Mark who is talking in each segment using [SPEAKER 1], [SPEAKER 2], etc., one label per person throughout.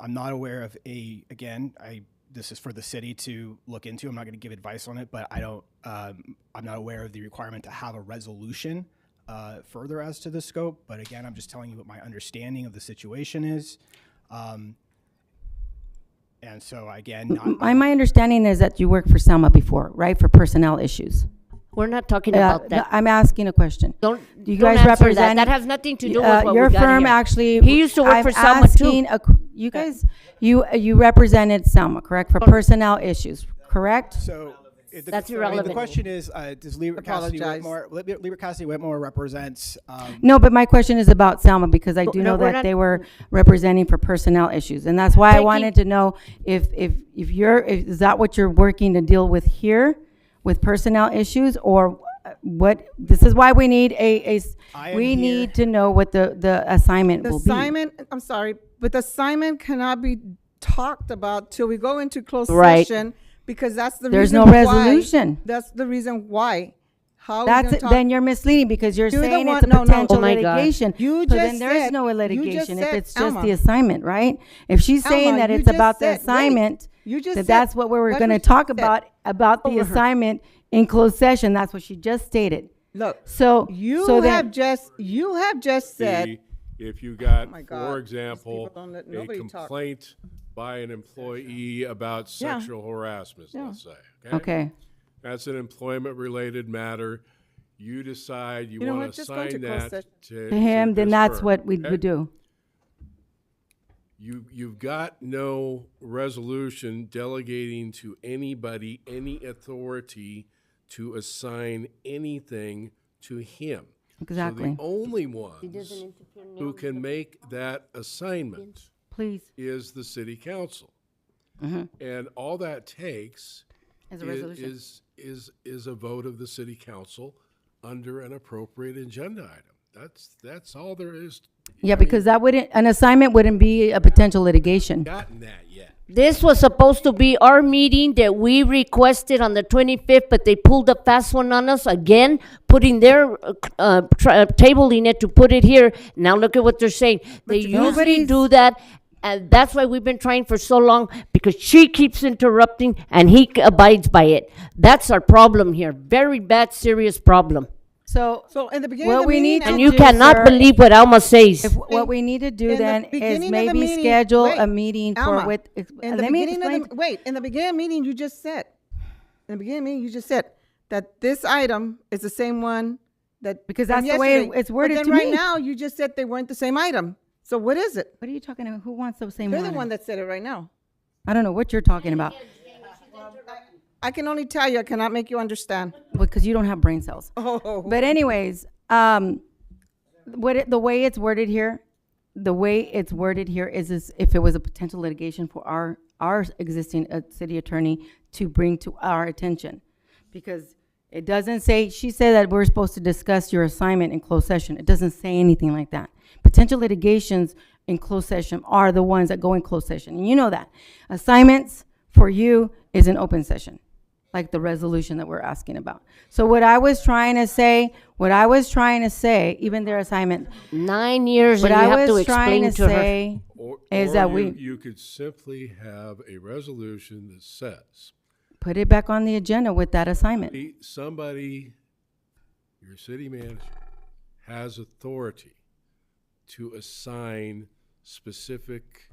[SPEAKER 1] I'm not aware of a again. I this is for the city to look into. I'm not going to give advice on it, but I don't. Um, I'm not aware of the requirement to have a resolution uh, further as to the scope. But again, I'm just telling you what my understanding of the situation is. Um, and so again, not,
[SPEAKER 2] My, my understanding is that you worked for Selma before, right, for personnel issues?
[SPEAKER 3] We're not talking
[SPEAKER 2] Uh,
[SPEAKER 3] about that.
[SPEAKER 2] I'm asking a question.
[SPEAKER 3] Don't,
[SPEAKER 2] You
[SPEAKER 3] don't
[SPEAKER 2] guys
[SPEAKER 3] answer that.
[SPEAKER 2] represent-
[SPEAKER 3] That has nothing to do
[SPEAKER 2] Uh,
[SPEAKER 3] with what
[SPEAKER 2] Your
[SPEAKER 3] we got
[SPEAKER 2] firm
[SPEAKER 3] here.
[SPEAKER 2] actually.
[SPEAKER 3] He used to work
[SPEAKER 2] I'm
[SPEAKER 3] for Selma too.
[SPEAKER 2] asking a qu- You guys, you, you represented Selma, correct, for personnel issues, correct?
[SPEAKER 1] So. it- the-
[SPEAKER 3] That's
[SPEAKER 1] I mean,
[SPEAKER 3] irrelevant.
[SPEAKER 1] The question is, uh, does Lieber Cassidy
[SPEAKER 4] Apologize.
[SPEAKER 1] Whitmore, Lieber Lieber Cassidy Whitmore represents, um,
[SPEAKER 2] No, but my question is about Selma because I do
[SPEAKER 3] No,
[SPEAKER 2] know
[SPEAKER 3] we're
[SPEAKER 2] that
[SPEAKER 3] not-
[SPEAKER 2] they were representing for personnel issues. And that's why I
[SPEAKER 3] Taking-
[SPEAKER 2] wanted to know if, if, if you're, if- is that what you're working to deal with here with personnel issues or what? This is why we need a, a s-
[SPEAKER 1] I am
[SPEAKER 2] we
[SPEAKER 1] here-
[SPEAKER 2] need to know what the, the assignment
[SPEAKER 4] The
[SPEAKER 2] will be.
[SPEAKER 4] assignment, I'm sorry, but the assignment cannot be talked about till we go into closed
[SPEAKER 3] Right.
[SPEAKER 4] session because that's the
[SPEAKER 2] There's
[SPEAKER 4] reason
[SPEAKER 2] no
[SPEAKER 4] why-
[SPEAKER 2] resolution.
[SPEAKER 4] That's the reason why. How are we
[SPEAKER 2] That's,
[SPEAKER 4] gonna
[SPEAKER 2] it-
[SPEAKER 4] talk-
[SPEAKER 2] then you're misleading because you're
[SPEAKER 4] You're the
[SPEAKER 2] saying it's
[SPEAKER 4] one-
[SPEAKER 2] a
[SPEAKER 4] no, no.
[SPEAKER 2] potential
[SPEAKER 3] Oh my God.
[SPEAKER 2] litigation.
[SPEAKER 4] You
[SPEAKER 2] So then
[SPEAKER 4] just
[SPEAKER 2] there is
[SPEAKER 4] said-
[SPEAKER 2] no
[SPEAKER 4] you just
[SPEAKER 2] litigation if
[SPEAKER 4] said,
[SPEAKER 2] it's just the
[SPEAKER 4] Alma.
[SPEAKER 2] assignment, right? If she's saying
[SPEAKER 4] Alma,
[SPEAKER 2] that
[SPEAKER 4] you
[SPEAKER 2] it's
[SPEAKER 4] just
[SPEAKER 2] about the
[SPEAKER 4] said- wait.
[SPEAKER 2] assignment,
[SPEAKER 4] You
[SPEAKER 2] that
[SPEAKER 4] just said-
[SPEAKER 2] that's what we were
[SPEAKER 4] that's
[SPEAKER 2] gonna
[SPEAKER 4] what she
[SPEAKER 2] talk
[SPEAKER 4] said.
[SPEAKER 2] about, about the
[SPEAKER 4] Over her.
[SPEAKER 2] assignment in closed session, that's what she just stated.
[SPEAKER 4] Look,
[SPEAKER 2] So,
[SPEAKER 4] you
[SPEAKER 2] so
[SPEAKER 4] have
[SPEAKER 2] then,
[SPEAKER 4] just you have just said
[SPEAKER 5] be if you got,
[SPEAKER 4] Oh my God,
[SPEAKER 5] for
[SPEAKER 4] these
[SPEAKER 5] example,
[SPEAKER 4] people don't let
[SPEAKER 5] a
[SPEAKER 4] nobody talk.
[SPEAKER 5] complaint by an employee about
[SPEAKER 4] Yeah.
[SPEAKER 5] sexual harassment, let's say.
[SPEAKER 2] okay,
[SPEAKER 5] That's an employment-related matter. You decide you
[SPEAKER 4] You know
[SPEAKER 5] want
[SPEAKER 4] what?
[SPEAKER 5] to
[SPEAKER 4] Just go into
[SPEAKER 5] assign
[SPEAKER 4] closed
[SPEAKER 5] that
[SPEAKER 4] session.
[SPEAKER 5] to.
[SPEAKER 2] to him,
[SPEAKER 5] to
[SPEAKER 2] then
[SPEAKER 5] this
[SPEAKER 2] that's
[SPEAKER 5] firm,
[SPEAKER 2] what we
[SPEAKER 5] okay?
[SPEAKER 2] would do.
[SPEAKER 5] You, you've got no resolution delegating to anybody any authority to assign anything to him. So
[SPEAKER 2] Exactly.
[SPEAKER 5] the only ones who can make that assignment
[SPEAKER 2] Please,
[SPEAKER 5] is the city council. And all that takes
[SPEAKER 2] as Mm-hmm. a
[SPEAKER 5] i-
[SPEAKER 2] resolution.
[SPEAKER 5] is, is, is a vote of the city council under an appropriate agenda item. That's, that's all there is.
[SPEAKER 2] Yeah, because that wouldn't, an assignment wouldn't be a potential litigation.
[SPEAKER 5] Gotten that yet?
[SPEAKER 3] This was supposed to be our meeting that we requested on the 25th, but they pulled a fast one on us again, putting their uh, c- uh, tr- uh, table in it to put it here. Now look at what they're saying. They usually
[SPEAKER 2] nobody's-
[SPEAKER 3] do that, and that's why we've been trying for so long, because she keeps interrupting and he c- abides by it. That's our problem here, very bad, serious problem.
[SPEAKER 2] So,
[SPEAKER 4] so in the beginning
[SPEAKER 2] What
[SPEAKER 4] of the
[SPEAKER 2] we need
[SPEAKER 4] meeting,
[SPEAKER 2] to
[SPEAKER 4] I-
[SPEAKER 3] And you
[SPEAKER 2] do,
[SPEAKER 3] cannot
[SPEAKER 2] sir,
[SPEAKER 3] believe what Alma says.
[SPEAKER 2] If, what we need to
[SPEAKER 4] in
[SPEAKER 2] do
[SPEAKER 4] the
[SPEAKER 2] then
[SPEAKER 4] beginning of
[SPEAKER 2] is
[SPEAKER 4] the
[SPEAKER 2] maybe
[SPEAKER 4] meeting-
[SPEAKER 2] schedule a
[SPEAKER 4] wait,
[SPEAKER 2] meeting for
[SPEAKER 4] Alma,
[SPEAKER 2] with, ex- uh,
[SPEAKER 4] in the
[SPEAKER 2] let me
[SPEAKER 4] beginning of the-
[SPEAKER 2] explain.
[SPEAKER 4] Wait, in the beginning meeting, you just said, in the beginning meeting, you just said that this item is the same one that
[SPEAKER 2] Because
[SPEAKER 4] from
[SPEAKER 2] that's the way
[SPEAKER 4] yesterday.
[SPEAKER 2] it's worded
[SPEAKER 4] But
[SPEAKER 2] to
[SPEAKER 4] then right
[SPEAKER 2] me.
[SPEAKER 4] now, you just said they weren't the same item. So what is it?
[SPEAKER 2] What are you talking about? Who wants the same
[SPEAKER 4] You're the one
[SPEAKER 2] one?
[SPEAKER 4] that said it right now.
[SPEAKER 2] I don't know what you're talking about,
[SPEAKER 4] I can only tell you, I cannot make you understand.
[SPEAKER 2] because you don't have brain cells.
[SPEAKER 4] Oh.
[SPEAKER 2] But anyways, um, what, it- the way it's worded here, the way it's worded here is, is if it was a potential litigation for our, our existing uh, city attorney to bring to our attention. Because it doesn't say, she said that we're supposed to discuss your assignment in closed session. It doesn't say anything like that. Potential litigations in closed session are the ones that go in closed session, and you know that. Assignments for you is an open session like the resolution that we're asking about. So what I was trying to say, what I was trying to say, even their assignment,
[SPEAKER 3] Nine years
[SPEAKER 2] what
[SPEAKER 3] and you
[SPEAKER 2] I
[SPEAKER 3] have to
[SPEAKER 2] was trying
[SPEAKER 3] explain
[SPEAKER 2] to
[SPEAKER 3] to her.
[SPEAKER 2] say
[SPEAKER 5] Or,
[SPEAKER 2] is
[SPEAKER 5] or
[SPEAKER 2] that
[SPEAKER 5] you-
[SPEAKER 2] we
[SPEAKER 5] You could simply have a resolution that says,
[SPEAKER 2] put it back on the agenda with that assignment.
[SPEAKER 5] "Be- somebody, your city manager, has authority to assign specific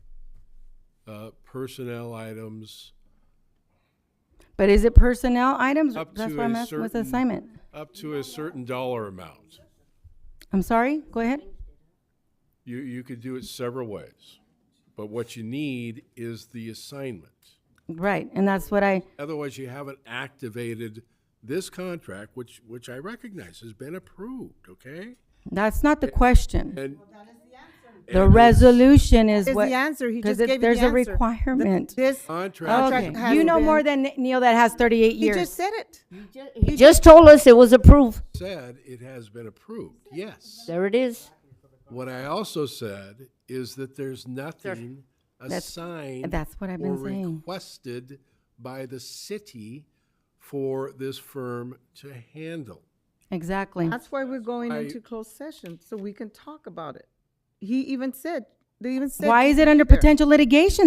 [SPEAKER 5] uh, personnel items
[SPEAKER 2] But is it personnel items?
[SPEAKER 5] Up
[SPEAKER 2] That's
[SPEAKER 5] to
[SPEAKER 2] why
[SPEAKER 5] a
[SPEAKER 2] I'm asking, what's the
[SPEAKER 5] certain-
[SPEAKER 2] assignment?
[SPEAKER 5] up to a certain dollar amount.
[SPEAKER 2] I'm sorry, go ahead.
[SPEAKER 5] You, you could do it several ways, but what you need is the assignment.
[SPEAKER 2] Right, and that's what I,
[SPEAKER 5] Otherwise, you haven't activated this contract, which, which I recognize has been approved, okay?
[SPEAKER 2] that's not the question.
[SPEAKER 5] And.
[SPEAKER 2] The
[SPEAKER 5] and it's-
[SPEAKER 2] resolution is
[SPEAKER 4] Is
[SPEAKER 2] what.
[SPEAKER 4] the answer. He
[SPEAKER 2] 'cause
[SPEAKER 4] just
[SPEAKER 2] it-
[SPEAKER 4] gave you the
[SPEAKER 2] There's a
[SPEAKER 4] answer.
[SPEAKER 2] requirement.
[SPEAKER 4] This
[SPEAKER 5] Contract.
[SPEAKER 4] contract
[SPEAKER 2] Okay,
[SPEAKER 4] has
[SPEAKER 2] you know
[SPEAKER 4] been-
[SPEAKER 2] more than Neil that has thirty-eight
[SPEAKER 4] He
[SPEAKER 2] years.
[SPEAKER 4] just said it.
[SPEAKER 3] He just told us it was approved.
[SPEAKER 5] said it has been approved, yes.
[SPEAKER 3] There it is.
[SPEAKER 5] What I also said is that there's nothing assigned.
[SPEAKER 2] that's what I've been
[SPEAKER 5] Or
[SPEAKER 2] saying.
[SPEAKER 5] requested by the city for this firm to handle.
[SPEAKER 2] Exactly.
[SPEAKER 4] That's why we're going
[SPEAKER 5] I-
[SPEAKER 4] into closed session, so we can talk about it. He even said, They even said.
[SPEAKER 2] Why is it under potential litigation